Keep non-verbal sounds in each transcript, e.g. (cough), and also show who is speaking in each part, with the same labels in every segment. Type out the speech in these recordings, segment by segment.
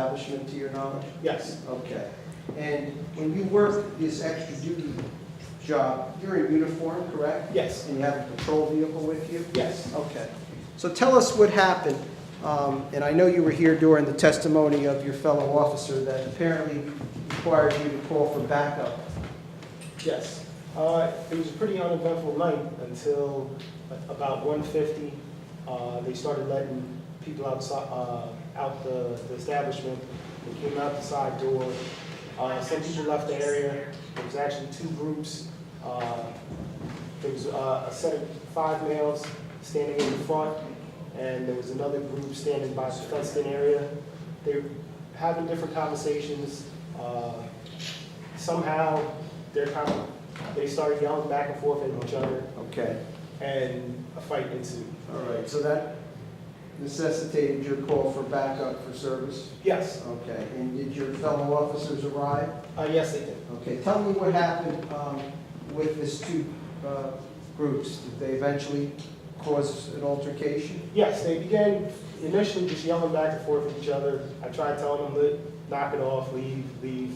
Speaker 1: establishment, to your knowledge?
Speaker 2: Yes,
Speaker 1: Okay. And when you work this extra duty job, you're in uniform, correct?
Speaker 2: yes,
Speaker 1: And you have a patrol vehicle with you?
Speaker 2: yes.
Speaker 1: Okay. So tell us what happened. Um, And I know you were here during the testimony of your fellow officer that apparently required you to call for backup.
Speaker 2: Yes. Uh, It was a pretty uneventful night until about 1:50. Uh, They started letting people outside, uh, out the the establishment. They came out the side door. Uh, Some people left the area. There was actually two groups. Uh, There was uh, a set of five males standing in the front, and there was another group standing by the fenced-in area. They were having different conversations. Uh, Somehow, they're kind of, they started yelling back and forth at each other,
Speaker 1: Okay.
Speaker 2: and a fight ensued.
Speaker 1: All right. So that necessitated your call for backup for service?
Speaker 2: Yes,
Speaker 1: Okay. And did your fellow officers arrive?
Speaker 2: uh, yes, they did.
Speaker 1: Okay, tell me what happened um, with these two uh, groups. Did they eventually cause an altercation?
Speaker 2: Yes, they began initially just yelling back and forth at each other. I tried telling them, "Look, knock it off, leave, leave.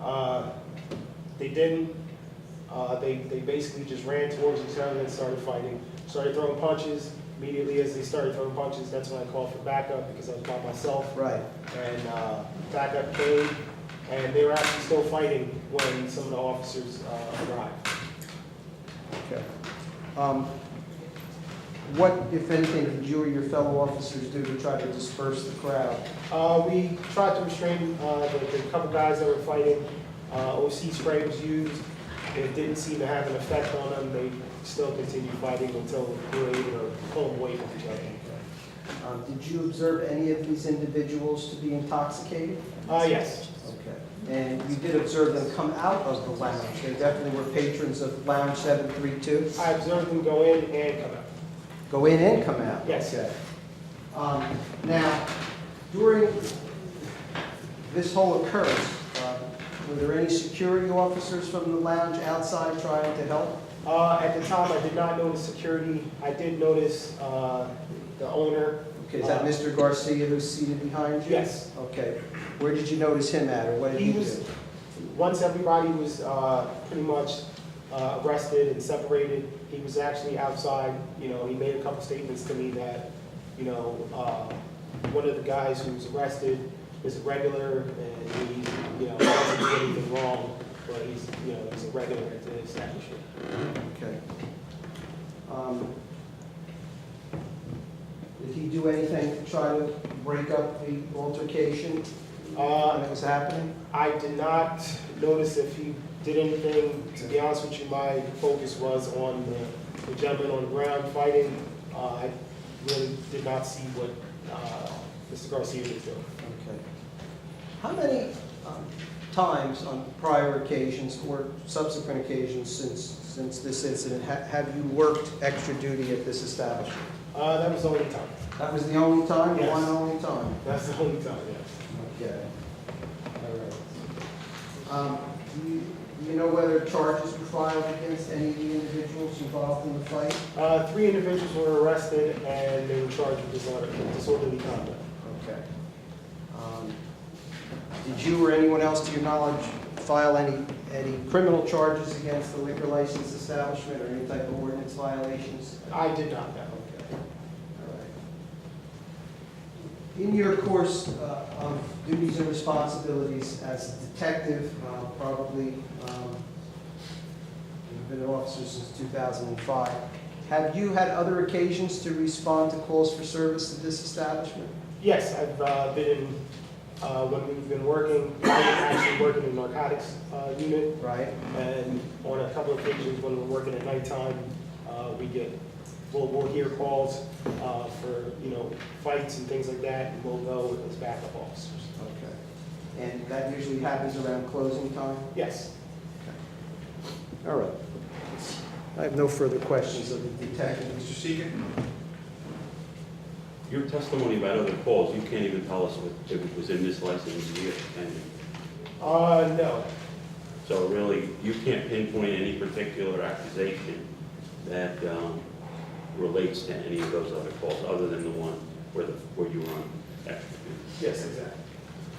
Speaker 2: Uh, They didn't. Uh, They, they basically just ran towards each other and started fighting, started throwing punches. Immediately as they started throwing punches, that's when I called for backup because I was by myself.
Speaker 1: Right.
Speaker 2: and uh, backup came, and they were actually still fighting when some of the officers uh, arrived.
Speaker 1: Okay. Um, What, if anything, did you or your fellow officers do to try to disperse the crowd?
Speaker 2: Uh, We tried to restrain uh, the the couple guys that were fighting. Uh, OC spray was used. It didn't seem to have an effect on them. They still continued fighting until we were able to pull them away from each other.
Speaker 1: Um, Did you observe any of these individuals to be intoxicated?
Speaker 2: Uh, Yes,
Speaker 1: Okay. And you did observe them come out of the lounge. They definitely were patrons of Lounge 732.
Speaker 2: I observed them go in and come out.
Speaker 1: Go in and come out?
Speaker 2: Yes.
Speaker 1: Okay. Um, Now, during this whole occurrence, uh, were there any security officers from the lounge outside trying to help?
Speaker 2: Uh, At the time, I did not notice security. I did notice uh, the owner.
Speaker 1: Okay, is that
Speaker 2: Uh,
Speaker 1: Mr. Garcia who's seated behind you?
Speaker 2: Yes.
Speaker 1: Okay. Where did you notice him at, or what did
Speaker 2: He
Speaker 1: he
Speaker 2: was,
Speaker 1: do?
Speaker 2: once everybody was uh, pretty much uh, arrested and separated, he was actually outside, you know, he made a couple statements to me that, you know, uh, one of the guys who was arrested is a regular, and he, you know, doesn't do anything wrong, but he's, you know, he's a regular at the establishment.
Speaker 1: Okay. Um, Did he do anything to try to break up the altercation when
Speaker 2: Uh,
Speaker 1: it was happening?
Speaker 2: I did not notice if he did anything, to be honest with you, my focus was on the- the gentleman on the ground fighting. Uh, I really did not see what uh, Mr. Garcia was doing.
Speaker 1: Okay. How many um, times on prior occasions or subsequent occasions since, since this incident ha- have you worked extra duty at this establishment?
Speaker 2: Uh, That was the only time.
Speaker 1: That was the only time, the
Speaker 2: Yes.
Speaker 1: one and only time?
Speaker 2: That's the only time, yes.
Speaker 1: Okay. All right. Um, Do you- do you know whether charges were filed against any of the individuals involved in the fight?
Speaker 2: Uh, Three individuals were arrested and they were charged with disorder- disorderly conduct.
Speaker 1: Okay. Um, Did you or anyone else, to your knowledge, file any, any criminal charges against the liquor license establishment or any type of ordinance violations?
Speaker 2: I did not know.
Speaker 1: Okay, all right. In your course uh, of duties and responsibilities as a detective, uh, probably, um, you've been an officer since 2005, have you had other occasions to respond to calls for service at this establishment?
Speaker 2: Yes, I've uh, been, in, uh, when we've been working, (coughs) I was actually working in narcotics uh, unit.
Speaker 1: Right?
Speaker 2: And on a couple of occasions when we're working at nighttime, uh, we get, we'll, we'll hear calls, uh, for, you know, fights and things like that, and we'll go as backup officers.
Speaker 1: Okay. And that usually happens around closing time?
Speaker 2: Yes,
Speaker 1: All right. I have no further questions of the detective.
Speaker 3: Mr. Seeger?
Speaker 4: Your testimony about other calls, you can't even tell us what, if it was in this license year, and
Speaker 2: uh, no,
Speaker 4: so really, you can't pinpoint any particular accusation that um, relates to any of those other calls, other than the one where the, where you were on. extra duty.
Speaker 2: yes, exactly.